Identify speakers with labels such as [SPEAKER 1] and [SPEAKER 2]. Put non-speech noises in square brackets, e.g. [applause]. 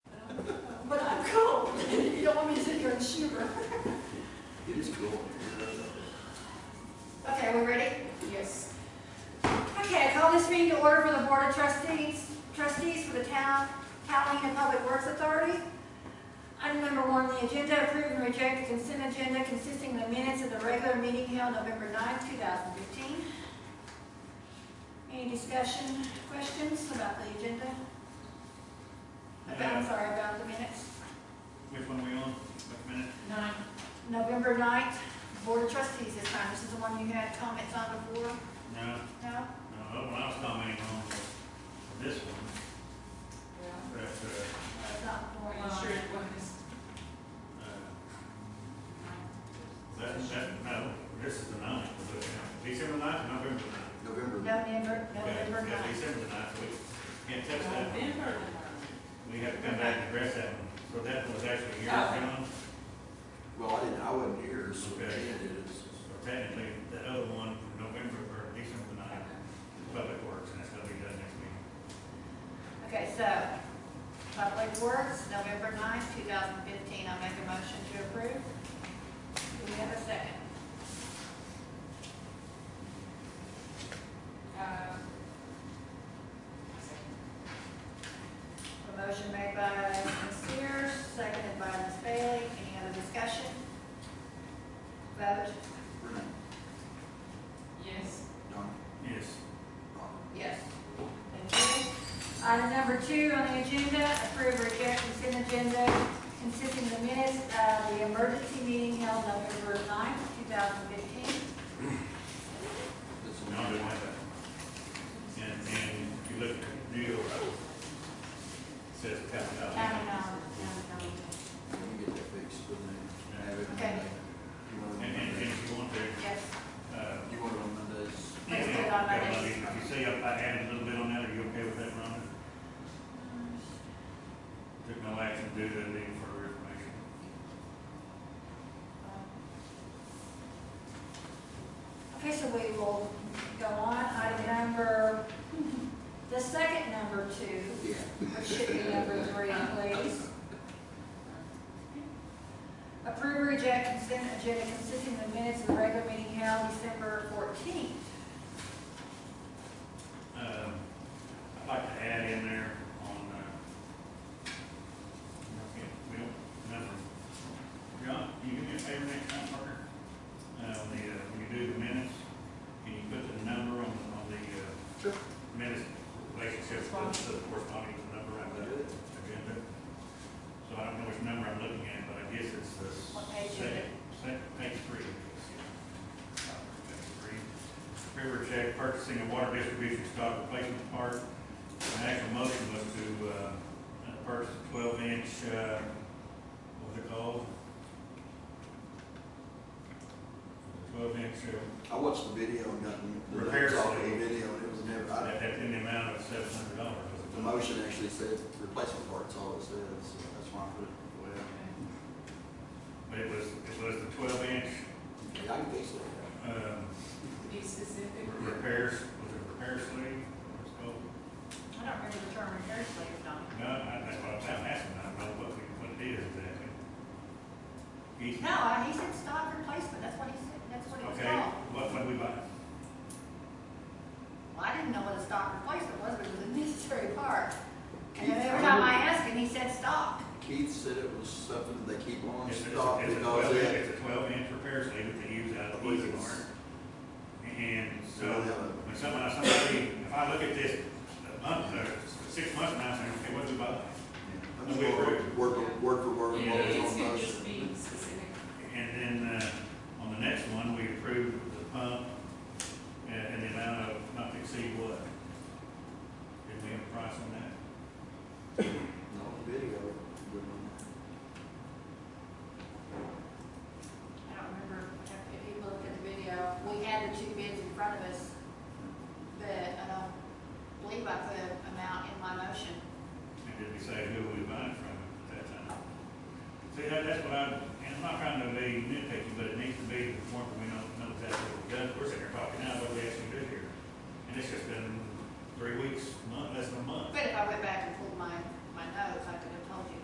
[SPEAKER 1] [laughs] don't want me to sit here and shiver.
[SPEAKER 2] [laughs] It is cool.
[SPEAKER 1] Okay, we ready?
[SPEAKER 3] Yes.
[SPEAKER 1] Okay, I call this meeting to order for the Board of Trustees, trustees for the town, Catalina Public Works Authority. Item number one on the agenda, approve and reject the consent agenda consisting of the minutes of the regular meeting held November 9th, 2015. Any discussion, questions about the agenda? About, I'm sorry, about the minutes.
[SPEAKER 4] Which one are we on? Wait a minute.
[SPEAKER 3] Nine.
[SPEAKER 1] November 9th, Board of Trustees this time. This is the one you had comments on before,
[SPEAKER 4] No,
[SPEAKER 1] no?
[SPEAKER 4] no, Oh, that one I was commenting on was this one, but, uh,
[SPEAKER 1] It's not before.
[SPEAKER 3] Are you sure it was?
[SPEAKER 4] uh, that, that, no, this is the ninth, we're looking at. December ninth, November ninth.
[SPEAKER 2] November,
[SPEAKER 1] November,
[SPEAKER 4] Okay,
[SPEAKER 1] November
[SPEAKER 4] yeah,
[SPEAKER 1] 9th.
[SPEAKER 4] December ninth, we can't touch that one.
[SPEAKER 3] November.
[SPEAKER 4] We have to come back and address that one. So that was actually here,
[SPEAKER 3] Oh.
[SPEAKER 4] John,
[SPEAKER 2] well, I didn't, I wasn't here, so Jan
[SPEAKER 4] Okay.
[SPEAKER 2] did it.
[SPEAKER 4] so technically, the other one, from November, or December ninth, Public Works, and that's gonna be done next week.
[SPEAKER 1] Okay, so, Public Works, November 9th, 2015, I'll make a motion to approve. Do we have a second?
[SPEAKER 3] Uh,
[SPEAKER 1] A motion made by Ms. Sears, seconded by Ms. Bailey, any other discussion? Vote,
[SPEAKER 2] Renee,
[SPEAKER 3] Yes.
[SPEAKER 2] Don,
[SPEAKER 4] Yes,
[SPEAKER 2] Ron,
[SPEAKER 1] yes. Thank you. Item number two on the agenda, approve or reject consent agenda consisting of the minutes of the emergency meeting held November 9th, 2015.
[SPEAKER 2] this is.
[SPEAKER 4] no, I didn't have that. And, and if you look at the deal, uh, it says capital.
[SPEAKER 1] County dollars, county dollars.
[SPEAKER 2] Let me get that fixed, but then have it on
[SPEAKER 1] Okay.
[SPEAKER 2] Monday. You want it
[SPEAKER 4] And, and,
[SPEAKER 2] on
[SPEAKER 4] and
[SPEAKER 2] Monday?
[SPEAKER 4] if you want to,
[SPEAKER 1] Yes,
[SPEAKER 4] uh.
[SPEAKER 2] You want it on Mondays?
[SPEAKER 1] Let's do it on Monday.
[SPEAKER 4] If you say I I added a little bit on that, are you okay with that, Rhonda? Took no action due to the need for information.
[SPEAKER 1] Okay, so we will go on, item number, the second number two,
[SPEAKER 2] Yeah.
[SPEAKER 1] which should be number three, please. Approve or reject consent agenda consisting of minutes of the regular meeting held December fourteenth.
[SPEAKER 4] Um, I'd like to add in there on, uh, yeah, we don't, nothing. John, can you do me a favor next time, Parker? Uh, on the, uh, when you do the minutes, can you put the number on, on the, uh,
[SPEAKER 2] Sure.
[SPEAKER 4] minutes relationship to the corresponding number on the agenda? So I don't know which number I'm looking at, but I guess it's the.
[SPEAKER 1] What page is
[SPEAKER 4] second-
[SPEAKER 1] it?
[SPEAKER 4] Second, page three. Page three. River check purchasing a water distribution stock replacement part. The actual motion was to, uh, purchase a twelve inch, uh, what's it called? Twelve inch, uh,
[SPEAKER 2] I watched the video and nothing. the
[SPEAKER 4] Repair
[SPEAKER 2] laptop,
[SPEAKER 4] sale.
[SPEAKER 2] The video, and it was never, I,
[SPEAKER 4] that, that's in the amount of seven hundred dollars.
[SPEAKER 2] the motion actually said replacement parts, all it said, so that's why I put it. the way I-
[SPEAKER 4] But it was, it was the twelve inch,
[SPEAKER 2] Yeah, I can fix it.
[SPEAKER 4] um,
[SPEAKER 3] Be specific.
[SPEAKER 4] repairs, was it repair sleeve? It's called,
[SPEAKER 1] I don't remember the term repair slave, Donna.
[SPEAKER 4] no, I, that's what I'm asking, I don't know what, we- what it is exactly. He's,
[SPEAKER 1] No, I- he said stock replacement, that's what he said, that's what it was
[SPEAKER 4] okay,
[SPEAKER 1] called.
[SPEAKER 4] what, what we buy?
[SPEAKER 1] Well, I didn't know what a stock replacement was, but it was a necessary part. And then every time I asked him, he said stock.
[SPEAKER 2] Keith said it was something they keep on
[SPEAKER 4] It's a, it's
[SPEAKER 2] stock
[SPEAKER 4] a- it's a twelve,
[SPEAKER 2] because it,
[SPEAKER 4] it's a twelve inch repair sleeve that they use out of
[SPEAKER 2] Yes.
[SPEAKER 4] Easy Mart. And
[SPEAKER 2] they don't
[SPEAKER 4] so,
[SPEAKER 2] have a-
[SPEAKER 4] when someone, somebody, if I look at this, a month, or six months from now, I'm saying, okay, what do we buy? uh,
[SPEAKER 1] um,